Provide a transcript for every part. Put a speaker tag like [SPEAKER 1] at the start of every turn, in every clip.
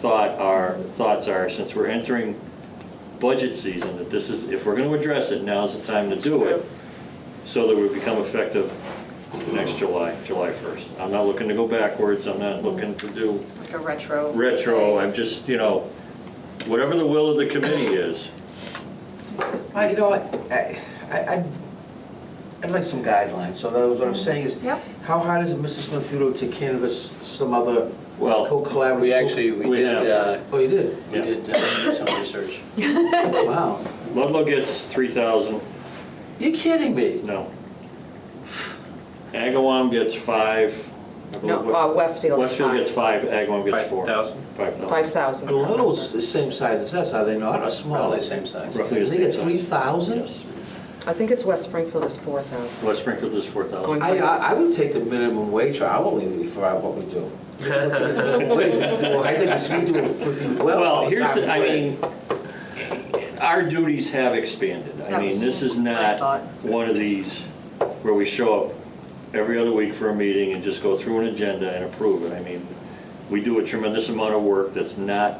[SPEAKER 1] thought our, thoughts are, since we're entering budget season, that this is, if we're gonna address it, now's the time to do it, so that we become effective next July, July 1st. I'm not looking to go backwards, I'm not looking to do
[SPEAKER 2] Like a retro.
[SPEAKER 1] retro, I'm just, you know, whatever the will of the committee is.
[SPEAKER 3] I, you know, what, I, I, I'd- I'd like some guidelines, so that was what I'm saying is,
[SPEAKER 2] Yep.
[SPEAKER 3] how hard is it, Mr. Smithfield to canvas some other
[SPEAKER 1] Well,
[SPEAKER 3] co-collaborative?
[SPEAKER 4] We actually, we
[SPEAKER 1] We
[SPEAKER 4] did, uh,
[SPEAKER 1] have.
[SPEAKER 3] Oh, you did?
[SPEAKER 4] we
[SPEAKER 1] Yeah.
[SPEAKER 4] did uh, do some research.
[SPEAKER 3] Wow.
[SPEAKER 1] Ludlow gets 3,000,
[SPEAKER 3] You're kidding me?
[SPEAKER 1] no. Agawam gets five. I believe
[SPEAKER 5] No,
[SPEAKER 1] what-
[SPEAKER 5] uh, Westfield is
[SPEAKER 1] Westfield
[SPEAKER 5] five.
[SPEAKER 1] gets five, Agawam gets four.
[SPEAKER 6] 5,000?
[SPEAKER 1] 5,000.
[SPEAKER 5] Five thousand.
[SPEAKER 3] Well, Little's the same size as us, are they not, or small?
[SPEAKER 4] Roughly the same size.
[SPEAKER 1] Roughly the
[SPEAKER 3] They
[SPEAKER 1] same
[SPEAKER 3] get
[SPEAKER 1] size.
[SPEAKER 3] 3,000?
[SPEAKER 1] Yes.
[SPEAKER 5] I think it's West Springfield is four thousand.
[SPEAKER 1] West Springfield is four thousand.
[SPEAKER 5] Going-
[SPEAKER 3] I, I I would take the minimum wage or hourly for our- what we do. Well, I think it's, we do it pretty well.
[SPEAKER 1] Well,
[SPEAKER 3] all
[SPEAKER 1] here's the,
[SPEAKER 3] time.
[SPEAKER 1] I mean, our duties have expanded. I mean, this is
[SPEAKER 2] Absolutely. I
[SPEAKER 1] not
[SPEAKER 2] thought.
[SPEAKER 1] one of these where we show up every other week for a meeting and just go through an agenda and approve it. I mean, we do a tremendous amount of work that's not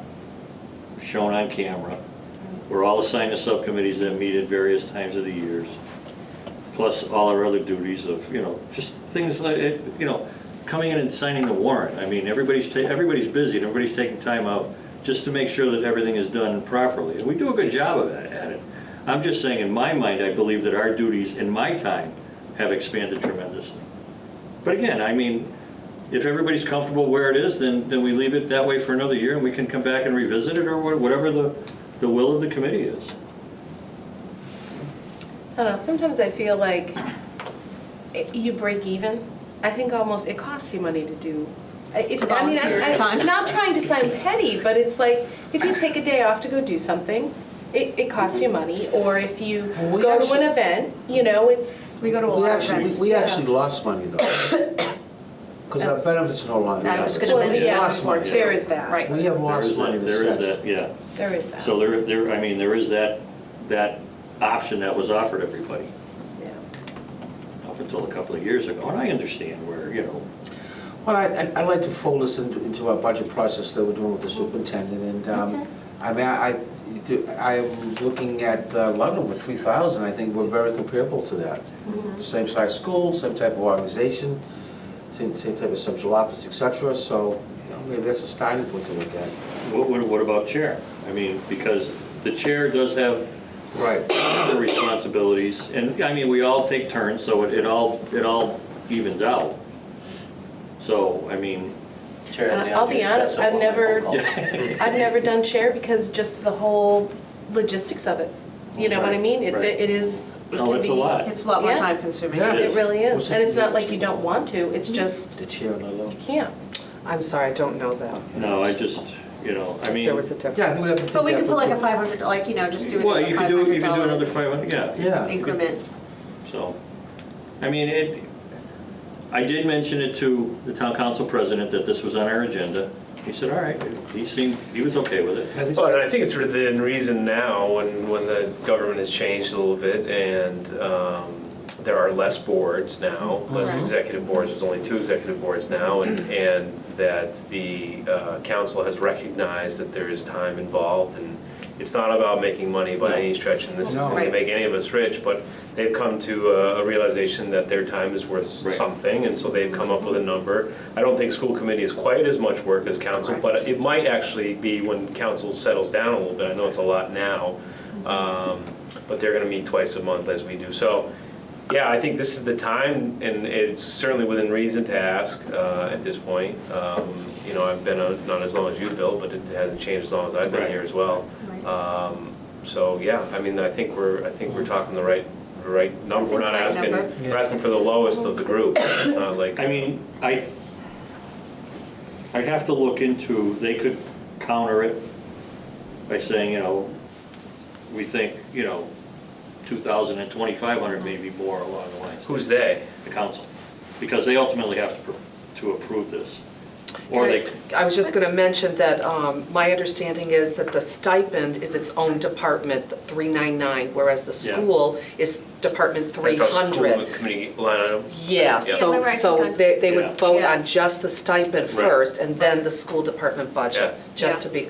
[SPEAKER 1] shown on camera. We're all assigned to subcommittees that meet at various times of the years, plus all our other duties of, you know, just things like, it. you know, coming in and signing the warrant. I mean, everybody's, ta- everybody's busy, and everybody's taking time out just to make sure that everything is done properly. And we do a good job of that, at it. I'm just saying, in my mind, I believe that our duties in my time have expanded tremendously. But again, I mean, if everybody's comfortable where it is, then, then we leave it that way for another year, and we can come back and revisit it, or wha- whatever the, the will of the committee is.
[SPEAKER 7] I don't know, sometimes I feel like it- you break even. I think almost it costs you money to do. I- It,
[SPEAKER 2] To
[SPEAKER 7] I mean,
[SPEAKER 2] volunteer
[SPEAKER 7] I, I,
[SPEAKER 2] time.
[SPEAKER 7] Not trying to sound petty, but it's like if you take a day off to go do something, it, it costs you money. Or if you
[SPEAKER 3] Well, we
[SPEAKER 7] go to
[SPEAKER 3] actually-
[SPEAKER 7] an event, you know, it's
[SPEAKER 2] We go to a
[SPEAKER 3] We
[SPEAKER 2] lot of
[SPEAKER 3] actually, we-
[SPEAKER 2] events.
[SPEAKER 3] we actually lost money though. Because our
[SPEAKER 2] That's-
[SPEAKER 3] benefits are no longer.
[SPEAKER 2] I was gonna
[SPEAKER 7] well,
[SPEAKER 2] mention
[SPEAKER 7] yeah,
[SPEAKER 3] lost money.
[SPEAKER 7] there is that.
[SPEAKER 2] Right.
[SPEAKER 3] We have
[SPEAKER 1] There is
[SPEAKER 3] lost money
[SPEAKER 1] that,
[SPEAKER 3] in
[SPEAKER 1] there is that,
[SPEAKER 3] assessed.
[SPEAKER 1] yeah.
[SPEAKER 7] There is that.
[SPEAKER 1] So there, there, I mean, there is that, that option that was offered everybody
[SPEAKER 7] yeah.
[SPEAKER 1] up until a couple of years ago, and I understand where, you know,
[SPEAKER 3] Well, I, I- I'd like to fold this into, into our budget process that we're doing with the superintendent and, um, I mean, I, I- you do- I'm looking at uh, London with three thousand, I think we're very comparable to that.
[SPEAKER 7] Mm-hmm.
[SPEAKER 3] Same size school, same type of organization, same, same type of central office, et cetera, so, you know, maybe that's a starting point to look at.
[SPEAKER 1] what, what what about chair? I mean, because the chair does have
[SPEAKER 3] Right.
[SPEAKER 1] the responsibilities, and, I mean, we all take turns, so it, it all, it all evens out. So, I mean,
[SPEAKER 4] Chair has the
[SPEAKER 7] I'll be
[SPEAKER 4] obvious
[SPEAKER 7] honest,
[SPEAKER 4] stress of
[SPEAKER 7] I've
[SPEAKER 4] one phone
[SPEAKER 7] never-
[SPEAKER 4] call.
[SPEAKER 7] I've never done chair because just the whole logistics of it. You know what I mean? It,
[SPEAKER 1] Right.
[SPEAKER 7] it is. It
[SPEAKER 1] No,
[SPEAKER 7] can
[SPEAKER 1] it's a
[SPEAKER 7] be-
[SPEAKER 1] lot.
[SPEAKER 2] It's a lot more
[SPEAKER 7] Yeah.
[SPEAKER 2] time consuming.
[SPEAKER 3] Yeah.
[SPEAKER 7] It really is,
[SPEAKER 3] What's
[SPEAKER 7] and
[SPEAKER 3] it-
[SPEAKER 7] it's not like you don't want to. It's just
[SPEAKER 3] The chair and I
[SPEAKER 7] you
[SPEAKER 3] love.
[SPEAKER 7] can't.
[SPEAKER 5] I'm sorry, I don't know that.
[SPEAKER 1] no, I just, you know, I mean.
[SPEAKER 5] There was a
[SPEAKER 3] Yeah, I think
[SPEAKER 5] difference.
[SPEAKER 3] we have to.
[SPEAKER 2] But we
[SPEAKER 3] think
[SPEAKER 2] could
[SPEAKER 3] that
[SPEAKER 2] put like a
[SPEAKER 3] through.
[SPEAKER 2] 500, like, you know, just do it.
[SPEAKER 1] Well, you could do, you could do another 500, yeah.
[SPEAKER 3] Yeah.
[SPEAKER 2] Increment.
[SPEAKER 1] So, I mean, it, I did mention it to the town council president that this was on our agenda. He said, all right, he seemed, he was okay with it.
[SPEAKER 3] I think so.
[SPEAKER 6] Well, and I think it's within reason now, when, when the government has changed a little bit, and um, there are less boards now, less
[SPEAKER 2] Right.
[SPEAKER 6] executive boards, there's only two executive boards now, and, and that the uh, council has recognized that there is time involved, and it's not about making money by any stretch, and this isn't
[SPEAKER 3] No.
[SPEAKER 6] going to make any of us rich, but they've come to a a realization that their time is worth
[SPEAKER 1] Right.
[SPEAKER 6] something, and so they've come up with a number. I don't think school committee is quite as much work as council, but it might actually be when council settles down a little bit, I know it's a lot now, um, but they're gonna meet twice a month as we do. So, yeah, I think this is the time, and it's certainly within reason to ask uh, at this point. Um, You know, I've been, on- not as long as you, Bill, but it hasn't changed as long as I've been
[SPEAKER 1] Right.
[SPEAKER 6] here as well. Um, So, yeah, I mean, I think we're, I think we're talking the right, the right number. We're not
[SPEAKER 2] Right
[SPEAKER 6] asking,
[SPEAKER 2] number.
[SPEAKER 6] we're asking for the lowest of the group, It's not like.
[SPEAKER 1] I mean, I, th- I'd have to look into, they could counter it by saying, you know, we think, you know, 2,000 and 2,500 may be more along the lines.
[SPEAKER 6] Who's they?
[SPEAKER 1] The council, because they ultimately have to, pr- to approve this. Or they, c-
[SPEAKER 5] I was just gonna mention that, um, my understanding is that the stipend is its own department, three nine nine, whereas the
[SPEAKER 1] Yeah.
[SPEAKER 5] school is
[SPEAKER 7] Department
[SPEAKER 6] That's how school
[SPEAKER 7] 300.
[SPEAKER 6] committee line item.
[SPEAKER 7] Yeah,
[SPEAKER 6] Yeah.
[SPEAKER 5] Yeah,
[SPEAKER 7] so,
[SPEAKER 5] remember I
[SPEAKER 7] so
[SPEAKER 5] think I-
[SPEAKER 7] they, they
[SPEAKER 1] Yeah.
[SPEAKER 7] would vote
[SPEAKER 5] Yeah.
[SPEAKER 7] on just the stipend
[SPEAKER 6] Right.
[SPEAKER 7] first, and then the school department budget,
[SPEAKER 6] Yeah.
[SPEAKER 7] just
[SPEAKER 5] Yeah.
[SPEAKER 7] to be